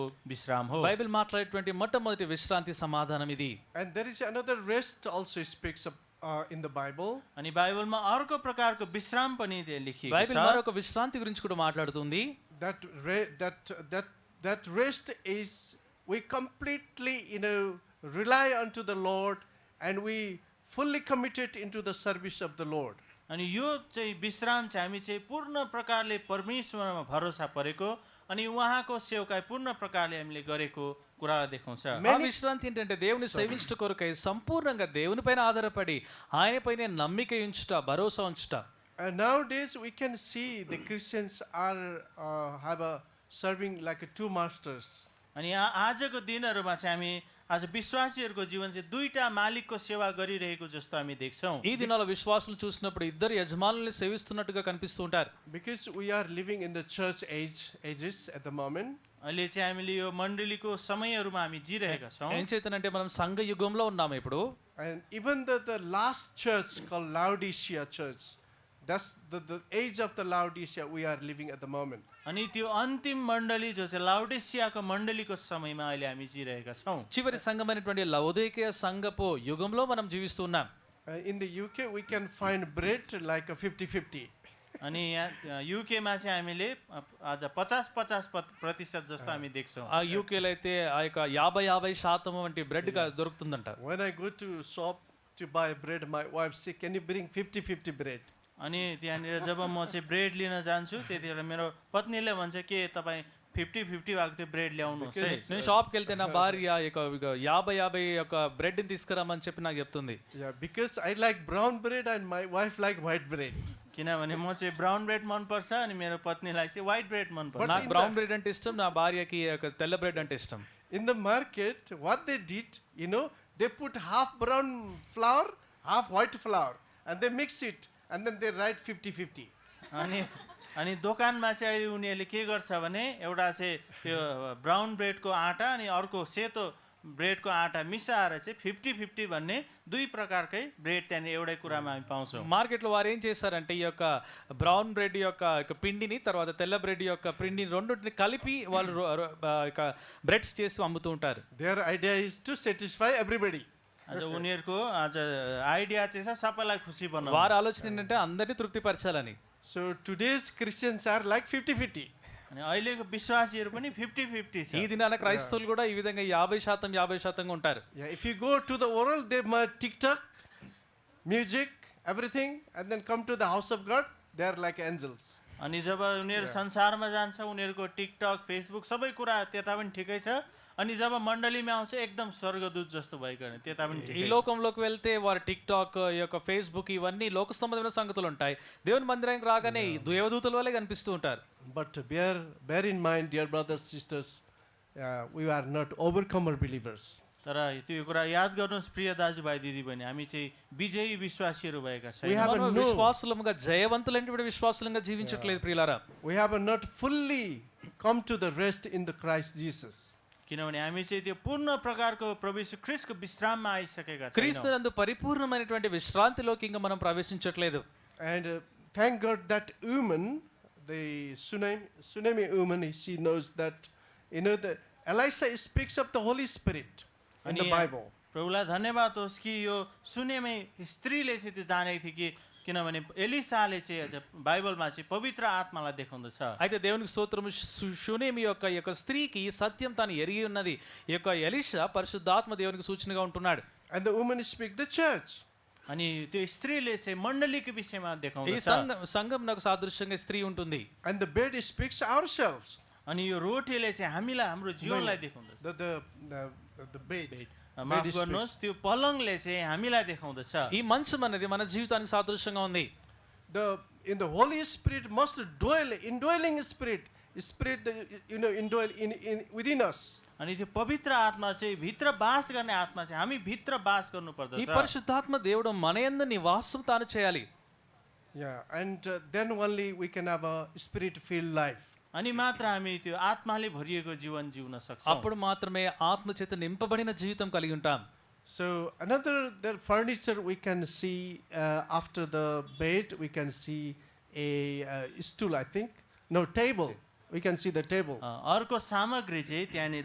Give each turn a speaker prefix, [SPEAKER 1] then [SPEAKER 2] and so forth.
[SPEAKER 1] విశ్రామ హో
[SPEAKER 2] బైబిల్ మాట్లాడేటువంటి మొట్టమొదటి విశ్రాంతి సమాధానం ఇది
[SPEAKER 3] And there is another rest also speaks of, uh, in the Bible.
[SPEAKER 1] अनि बाइबलमा अर्को प्रकारको विश्राम पनि त्यहाँ लेखिएको
[SPEAKER 2] బైబిల్
[SPEAKER 1] छ
[SPEAKER 2] మరొక విశ్రాంతి గురించి కూడా మాట్లాడుతుంది
[SPEAKER 3] That re- that that that rest is we completely you know rely unto the Lord and we fully committed into the service of the Lord.
[SPEAKER 1] अनि यो चाहिँ विश्राम चाहिँ हामी चाहिँ पूर्ण प्रकारले परमेश्वरमा भरोसा परेको अनि उहाँको सेवकाई पूर्ण प्रकारले हामीले गरेको कुरा देखाउँछ
[SPEAKER 2] ఆ
[SPEAKER 3] Many-
[SPEAKER 2] విశ్రాంతి ఏంటంటే దేవుని సేవించుట కొరకై సంపూర్ణంగా దేవునిపైన ఆధారపడి ఆయనపైనే నమ్మిక ఉంచుట భరోసా ఉంచుట
[SPEAKER 3] And nowadays we can see the Christians are uh, have a serving like a two masters.
[SPEAKER 1] अनि आ- आजको दिनहरूमा चाहिँ हामी आज विश्वासीहरूको जीवन चाहिँ दुईटा मालिकको सेवा गरिरहेको जस्तो हामी देख्छौँ
[SPEAKER 2] ఈ దినాల విశ్వాసులు చూసినప్పుడు ఇద్దరు యజమానుల్ని సేవిస్తున్నట్టుగా కనిపిస్తూ ఉంటారు
[SPEAKER 3] Because we are living in the church age ages at the moment,
[SPEAKER 1] अहिले चाहिँ हामीले यो मण्डलीको समयहरूमा हामी जिरहेका छौँ
[SPEAKER 2] ఏం చేతనంటే మనం సంఘ యుగంలో ఉన్నాము ఇప్పుడు
[SPEAKER 3] and even the, the last church called Laodicea Church, that's the, the age of the Laodicea we are living at the moment.
[SPEAKER 1] अनि त्यो अन्तिम मण्डली जो चाहिँ लाउडेसियाको मण्डलीको समयमा अहिले हामी जिरहेका छौँ
[SPEAKER 2] చివరి సంఘమైనటువంటి లవోదేకీయ సంఘపు యుగంలో మనం జీవిస్తున్నాం
[SPEAKER 3] Uh, in the UK, we can find bread like a 50 50.
[SPEAKER 1] अनि यहाँ युकेमा चाहिँ हामीले अ, आज पचास पचास प्रतिशत जस्तो हामी देख्छौँ
[SPEAKER 2] ఆ యూకేలో అయితే ఆ యొక్క యాభై యాభై శాతం వంటి బ్రెడ్ గా- దొరుకుతుందంట
[SPEAKER 3] When I go to shop to buy bread, my wife says, Can you bring 50 50 bread?
[SPEAKER 1] अनि त्यहाँनिर जब म चाहिँ ब्रेड लिन जान्छु त्यतिखेर मेरो पत्नीले भन्छ के तपाईँ फिफ्टी फिफ्टी भएको त्यो ब्रेड ल्याउनुहोस् है
[SPEAKER 3] Because-
[SPEAKER 2] నేను షాప్కి వెళ్తే నా భార్య ఈ యొక్క ఇక యాభై యాభై యొక్క బ్రెడ్ని తీసుకురామని చెప్పి నాకు చెప్తుంది
[SPEAKER 3] Yeah, because I like brown bread and my wife like white bread.
[SPEAKER 1] किनभने म चाहिँ ब्राउन ब्रेड मनपर्छ अनि मेरो पत्नीलाई चाहिँ व्हाइट ब्रेड मनपर्छ
[SPEAKER 2] నాకు బ్రౌన్ బ్రెడ్ అంటే ఇష్టం నా భార్యకి ఈ యొక్క తెల్ల బ్రెడ్ అంటే ఇష్టం
[SPEAKER 3] In the market, what they did, you know, they put half brown flour, half white flour, and they mix it, and then they write 50 50.
[SPEAKER 1] अनि अनि दोकानमा चाहिँ अहिले उनीहरूले के गर्छ भने एउटा चाहिँ त्यो ब्राउन ब्रेडको आँटा अनि अर्को सेतो ब्रेडको आँटा मिसाएर चाहिँ फिफ्टी फिफ्टी भन्ने दुई प्रकारकै ब्रेड त्यहाँनिर एउटै कुरामा हामी पाउँछौँ
[SPEAKER 2] మార్కెట్లో వారు ఏం చేశారంటే ఈ యొక్క బ్రౌన్ బ్రెడ్ యొక్క యొక్క పిండిని తర్వాత తెల్ల బ్రెడ్ యొక్క పిండిని రెండింటిని కలిపి వాళ్ళు రో- రో- ఆ యొక్క బ్రెడ్స్ చేసి అమ్ముతూ ఉంటారు
[SPEAKER 3] Their idea is to satisfy everybody.
[SPEAKER 1] आज उनीहरूको आज आइडिया चाहिँ छ सबैलाई खुसी बनाउनु
[SPEAKER 2] వారి ఆలోచన ఏంటంటే అందరినీ తృప్తిపరచాలని
[SPEAKER 3] So today's Christians are like 50 50.
[SPEAKER 1] अनि अहिलेको విశ్వాసీहरू पनि ఫిఫ్టీ ఫిఫ్టీ छ
[SPEAKER 2] ఈ దినాన క్రైస్తవులు కూడా ఈ విధంగా యాభై శాతం యాభై శాతంగా ఉంటారు
[SPEAKER 3] Yeah, if you go to the world, they might TikTok, music, everything, and then come to the house of God, they are like angels.
[SPEAKER 1] अनि जब उनीहरू संसारमा जान्छ उनीहरूको टिकटक फेसबुक सबै कुरा त्यता पनि ठिकै छ अनि జబ मण्डलीमा आउँछ एकदम स्वर्गदूत जस्तो भएको होइन त्यता पनि
[SPEAKER 2] ఈ
[SPEAKER 1] ठिकै छ।
[SPEAKER 2] లోకంలోకి వెళ్తే వారు టిక్ టాక్ ఈ యొక్క ఫేస్బుక్ ఇవన్నీ లోక సంబంధమైన సంగతులు ఉంటాయి దేవుని మందిరానికి రాగానే ఈ దేవదూతల వల్లే కనిపిస్తూ ఉంటారు
[SPEAKER 3] But bear, bear in mind, dear brothers, sisters, uh, we are not overcomer believers.
[SPEAKER 1] तर त्यो कुरा याद गर्नुहोस् प्रिय दाजुभाइ दिदीबहिनी हामी चाहिँ विजयी విశ్వాసీहरू భएका
[SPEAKER 3] We
[SPEAKER 1] छैनौँ
[SPEAKER 3] have a
[SPEAKER 2] మనము
[SPEAKER 3] no.
[SPEAKER 2] విశ్వాసులముగా జయవంతులైనటువంటి విశ్వాసులంగా జీవించట్లేదు ప్రియులారా
[SPEAKER 3] We have not fully come to the rest in the Christ Jesus.
[SPEAKER 1] किनभने हामी चाहिँ त्यो पूर्ण प्रकारको प्रवेश क्रिस्टको विश्राममा आइसकेका
[SPEAKER 2] క్రీస్తు
[SPEAKER 1] छैनौँ
[SPEAKER 2] నందు పరిపూర్ణమైనటువంటి విశ్రాంతిలోకి ఇంకా మనం ప్రవేశించట్లేదు
[SPEAKER 3] And uh, thank God that woman, the tsunami, tsunami woman, she knows that, you know, the Elisha speaks of the Holy Spirit in the
[SPEAKER 1] Ani-
[SPEAKER 3] Bible.
[SPEAKER 1] प्रभुलाई धन्यवाद होस् कि यो सुनेमै स्त्रीले चाहिँ त्यो जानेको थियो कि किनभने एलिसाले चाहिँ आज बाइबलमा चाहिँ पवित्र आत्मालाई देखाउँदछ
[SPEAKER 2] అయితే దేవునికి స్తోత్రము సు- శూనేమి యొక్క ఈ యొక్క స్త్రీకి సత్యం తాను ఎరిగి ఉన్నది ఈ యొక్క ఎలిషా పరిశుద్ధాత్మ దేవునికి సూచనగా ఉంటున్నాడు
[SPEAKER 3] And the woman speaks the church.
[SPEAKER 1] अनि त्यो स्त्रीले चाहिँ मण्डलीको विषयमा
[SPEAKER 2] ఈ
[SPEAKER 1] देखाउँदछ
[SPEAKER 2] సంఘం సంఘం నాకు సాదృశ్యంగా స్త్రీ ఉంటుంది
[SPEAKER 3] And the bed speaks ourselves.
[SPEAKER 1] अनि यो रोटीले चाहिँ हामीलाई हाम्रो जीवनलाई देखाउँदछ
[SPEAKER 3] The, the, the, the bed. Um,
[SPEAKER 1] माफ गर्नुहोस् त्यो पलङले चाहिँ हामीलाई देखाउँदछ
[SPEAKER 2] ఈ మంచం అనేది మన జీవితానికి సాదృశ్యంగా ఉంది
[SPEAKER 3] The, in the Holy Spirit must dwell, indwelling spirit, spirit, that, you know, indwell in, in, within us.
[SPEAKER 1] अनि त्यो पवित्र आत्मा चाहिँ भित्र बास गर्ने आत्मा चाहिँ हामी भित्र बास
[SPEAKER 2] ఈ
[SPEAKER 1] गर्नुपर्दछ
[SPEAKER 2] పరిశుద్ధాత్మ దేవుడు మన యందు నివాసం తాను చేయాలి
[SPEAKER 3] Yeah, and uh, then only we can have a spirit filled life.
[SPEAKER 1] अनि मात्र हामी त्यो आत्माले भरिएको जीवन जिउन सक्छौँ
[SPEAKER 2] అప్పుడు మాత్రమే ఆత్మ చేత నింపబడిన జీవితం కలిగి ఉంటాం
[SPEAKER 3] So, another the furniture we can see uh, after the bed, we can see a uh, stool, I think. No, table. we can see the table.
[SPEAKER 1] अ, अर्को सामग्री चाहिँ त्यहाँनिर